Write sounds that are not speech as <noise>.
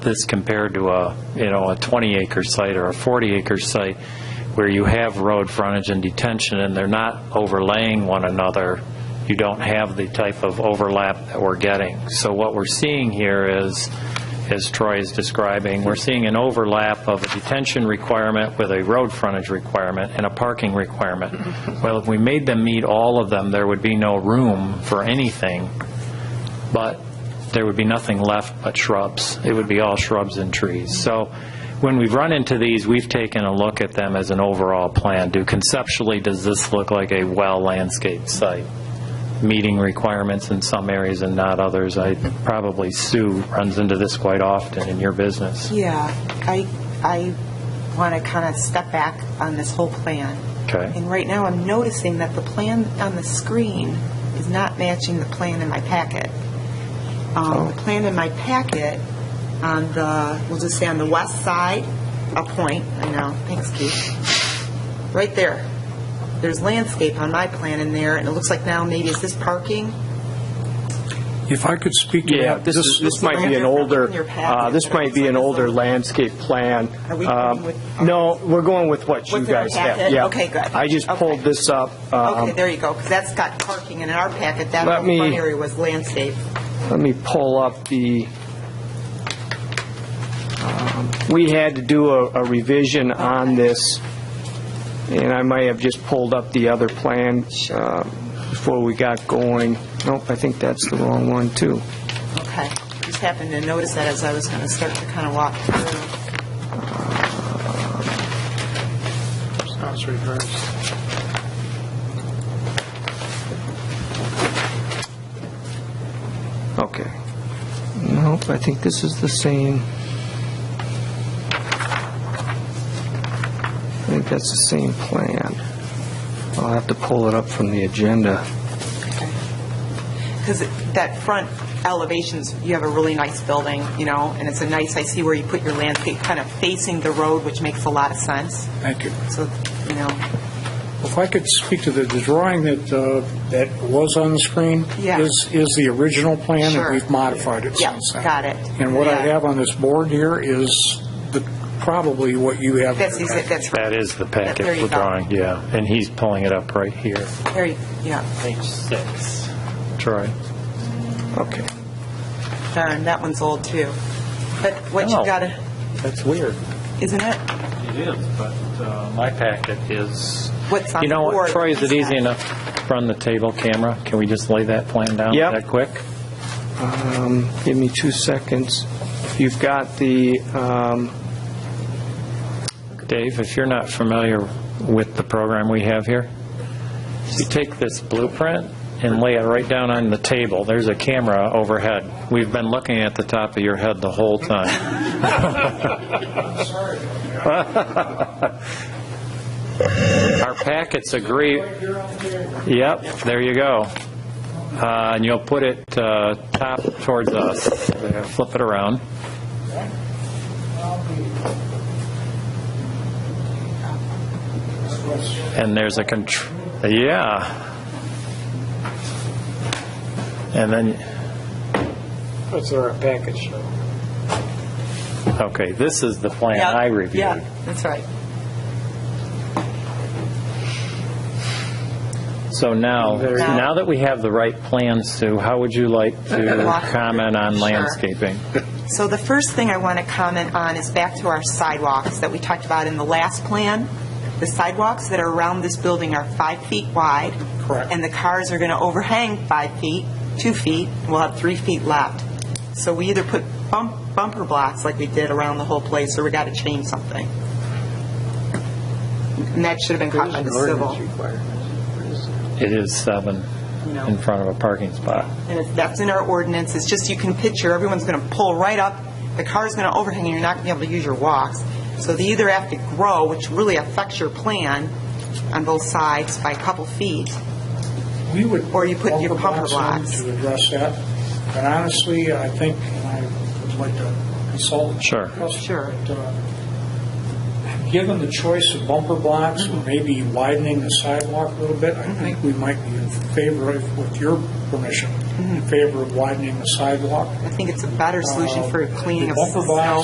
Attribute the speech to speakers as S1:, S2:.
S1: this compared to a, you know, a 20-acre site or a 40-acre site where you have road frontage and detention and they're not overlaying one another, you don't have the type of overlap that we're getting. So what we're seeing here is, as Troy is describing, we're seeing an overlap of a detention requirement with a road frontage requirement and a parking requirement. Well, if we made them meet all of them, there would be no room for anything but there would be nothing left but shrubs. It would be all shrubs and trees. So when we've run into these, we've taken a look at them as an overall plan. Do conceptually, does this look like a well-landscaped site? Meeting requirements in some areas and not others. I, probably Sue runs into this quite often in your business.
S2: Yeah, I, I want to kind of step back on this whole plan.
S1: Okay.
S2: And right now, I'm noticing that the plan on the screen is not matching the plan in my packet.
S3: Oh.
S2: Um, The plan in my packet on the, we'll just say on the west side, a point, I know, thanks Keith, right there. There's landscape on my plan in there, and it looks like now maybe is this parking?
S4: If I could speak to
S3: Yeah,
S4: that,
S3: this is, this might be an older, uh, this might be an older landscape plan.
S2: Are we
S3: Um,
S2: going with-
S3: No, we're going with what you
S2: What's in our
S3: guys have.
S2: packet?
S3: Yeah.
S2: Okay, good.
S3: I just
S2: Okay.
S3: pulled this up. um,
S2: Okay, there you go, because that's got parking, and in our packet, that
S3: Let
S2: whole front
S3: me-
S2: area was landscape.
S3: Let me pull up the, um, we had to do a a revision on this, and I might have just pulled up the other plan uh, before we got going. Nope, I think that's the wrong one, too.
S2: Okay, just happened to notice that as I was going to start to kind of walk through.
S4: House reversed.
S3: Okay. Nope, I think this is the same. I think that's the same plan. I'll have to pull it up from the agenda.
S2: Because that front elevations, you have a really nice building, you know, and it's a nice, I see where you put your landscape kind of facing the road, which makes a lot of sense.
S4: Thank you.
S2: So, you know,
S4: If I could speak to the the drawing that, uh, that was on the screen?
S2: Yeah.
S4: Is, is the original plan,
S2: Sure.
S4: and we've modified it
S2: Yeah,
S4: since then.
S2: got it.
S4: And what I
S2: Yeah.
S4: have on this board here is the- probably what you have.
S2: that's, easy- that's,
S1: That is the packet
S2: There you
S1: for
S2: go.
S1: drawing, yeah. And he's pulling it up right here.
S2: there you, yeah,
S1: Page six. Troy.
S3: Okay.
S2: darn, that one's old too. But what
S1: Oh.
S2: you got, to
S1: That's weird.
S2: isn't it?
S1: It is, but uh, my packet is...
S2: What's on
S1: You know
S2: the
S1: what,
S2: board
S1: Troy, is it
S2: is
S1: easy
S2: that-
S1: enough to run the table camera? Can we just lay that plan down
S3: Yep.
S1: that quick?
S3: Um, Give me two seconds. You've got the, um,
S1: Dave, if you're not familiar with the program we have here, you take this blueprint and lay it right down on the table. There's a camera overhead. We've been looking at the top of your head the whole time. <laughs> Our packets agree. Yep, there you go. Uh, And you'll put it uh, top towards us. There, Flip it around. And there's a contr, yeah. And then,
S4: That's our package.
S1: okay, this is the plan
S2: Yeah,
S1: I reviewed.
S2: Yeah, that's right.
S1: So now,
S2: you go.
S1: now that we have the right plan, Sue, how would you like to
S2: Walk through.
S1: comment on
S2: Sure.
S1: landscaping?
S2: So the first thing I want to comment on is back to our sidewalks that we talked about in the last plan. The sidewalks that are around this building are five feet wide.
S4: Correct.
S2: And the cars are going to overhang five feet, two feet, and we'll have three feet left. So we either put bump bumper blocks like we did around the whole place, or we got to change something. And that should have been caught by the civil.
S1: It is seven
S2: No.
S1: in front of a parking spot.
S2: and if that's in our ordinance, it's just you can picture, everyone's going to pull right up, the car's going to overhang, and you're not going to be able to use your walks. So they either have to grow, which really affects your plan on both sides by a couple feet.
S4: We would.
S2: Or you put your bumper
S4: in
S2: blocks.
S4: To address that. And honestly, I think, and I would like to consult.
S1: Sure.
S2: Sure.
S4: But, uh, Given the choice of bumper blocks,
S2: Mm-hmm.
S4: or maybe widening the sidewalk a little bit, I think we might be in favor of, with your permission,
S2: in favor of widening the sidewalk.
S4: I think it's a better solution for cleaning of
S2: The bumper
S4: snow
S2: box